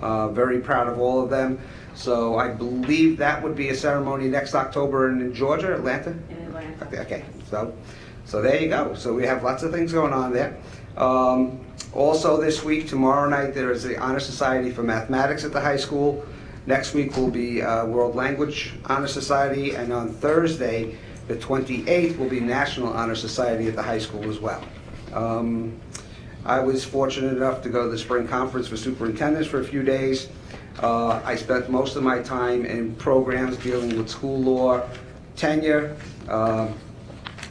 Uh, Very proud of all of them. So I believe that would be a ceremony next October in Georgia, Atlanta? in Atlanta. Okay, okay, so, so there you go. So we have lots of things going on there. Um, Also, this week, tomorrow night, there is the Honor Society for Mathematics at the high school. Next week will be uh, World Language Honor Society, and on Thursday, the 28th, will be National Honor Society at the high school as well. Um, I was fortunate enough to go to the spring conference for superintendents for a few days. Uh, I spent most of my time in programs dealing with school law, tenure, um,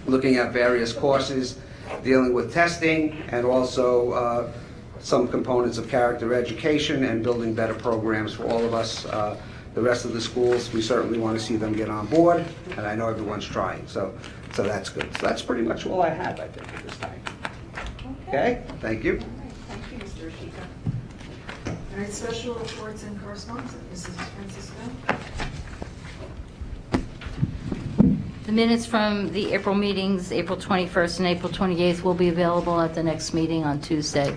looking at various courses, dealing with testing, and also uh, some components of character education and building better programs for all of us. Uh, The rest of the schools, we certainly want to see them get on board, and I know everyone's trying, so, so that's good. So that's pretty much all I have, I think, at this time. Okay, thank you. All right, Thank you, Mr. Ashika. All right, special reports and correspondence, Mrs. Francisco. The minutes from the April meetings, April 21st and April 28th, will be available at the next meeting on Tuesday,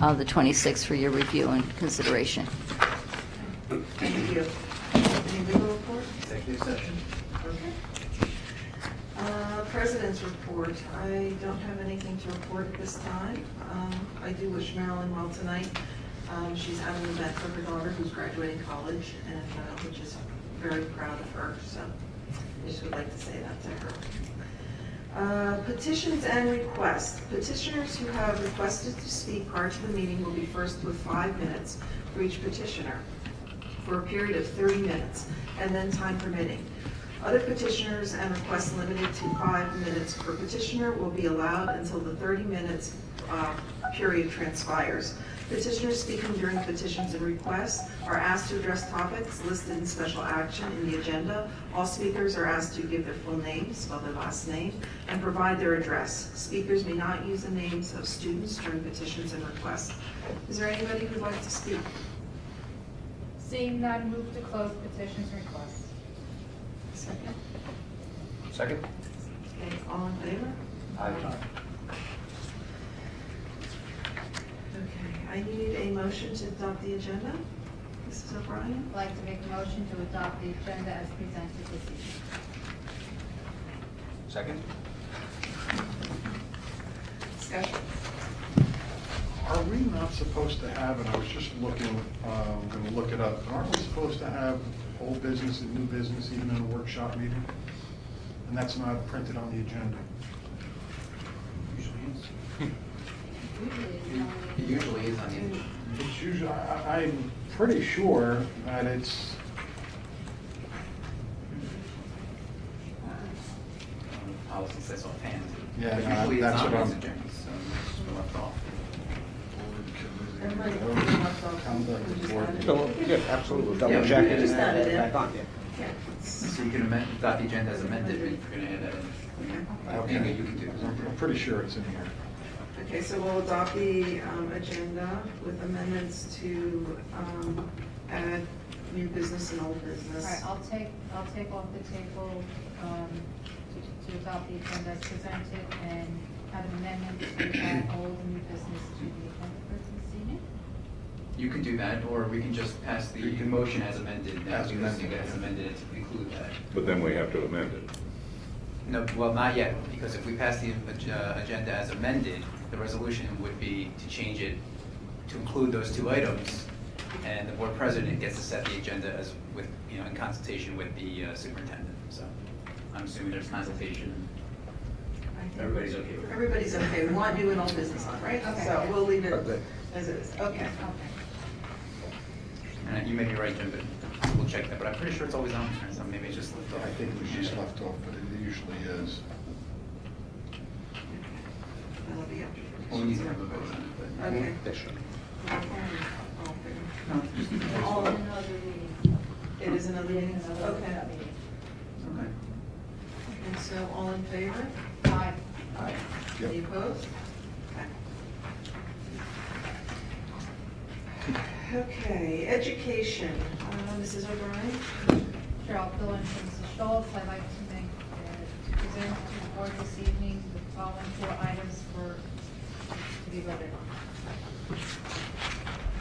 uh, the 26th, for your review and consideration. Thank you. Any legal report? Executive session. Okay. Uh, President's report, I don't have anything to report at this time. Um, I do wish Marilyn well tonight. Um, She's having an event for her daughter who's graduating college, and uh, which is very proud of her, so I just would like to say that to her. Uh, Petitions and requests. Petitioners who have requested to speak prior to the meeting will be first with five minutes for each petitioner for a period of 30 minutes, and then time permitting. Other petitioners and requests limited to five minutes per petitioner will be allowed until the 30 minutes uh, period transpires. Petitioners speaking during petitions and requests are asked to address topics listed in special action in the agenda. All speakers are asked to give their full name, spell their last name, and provide their address. Speakers may not use the names of students during petitions and requests. Is there anybody who'd like to speak? Seeing none, move to close petitions and requests. Second. Second? Okay, all in favor? Aye. Okay, I need a motion to adopt the agenda. Mrs. O'Brien, I'd like to make a motion to adopt the agenda as presented this evening. Second? discussion. Are we not supposed to have, and I was just looking, uh, I'm going to look it up, but aren't we supposed to have old business and new business even in a workshop meeting? And that's not printed on the agenda. It usually is on the end. It's usually, I- I'm pretty sure that it's, Um, Policy says offhand. Yeah, But no, Usually it's that's on what those I'm- agendas, so it's just left off. Conduct of board meeting. So, Yeah, absolutely. Yeah, Double we check can it just and add add it it in. back on, yeah. Yeah. So you can amend, adopt the agenda as amended, but you're gonna add that in. I think Okay. you can do. I'm I'm pretty sure it's in here. Okay, so we'll adopt the um, agenda with amendments to um, add new business and old All right, business. I'll take, I'll take off the table um, to to adopt the agenda as presented and have an amendment to add all the new business to the agenda for this evening. You can do that, or we can just pass the motion as amended, now, As because you amended. guys amended it to include that. But then we have to amend it. No, well, not yet, because if we pass the ag- uh, agenda as amended, the resolution would be to change it to include those two items, and the board president gets to set the agenda as with, you know, in consultation with the uh, superintendent, so I'm assuming there's consultation. I think- Everybody's okay with it? Everybody's okay, we want new and old business on, right? Okay. So we'll leave it Okay. as it is, okay. Okay. And you may be right, Jim, but we'll check that, but I'm pretty sure it's always on, there, so maybe it's just left off. I think it was just left off, but it usually is. That'll be up. We'll need to have a vote on it, but- Okay. They should. All in favor? No, just- All in. another meeting. It is another meeting, okay. Okay. And so all in favor? Aye. Yep. Any opposed? Okay, education, Uh, Mrs. O'Brien? Sure, I'll fill in for Mrs. Schultz. I'd like to make, uh, to present to the board this evening the following four items for, to be voted on.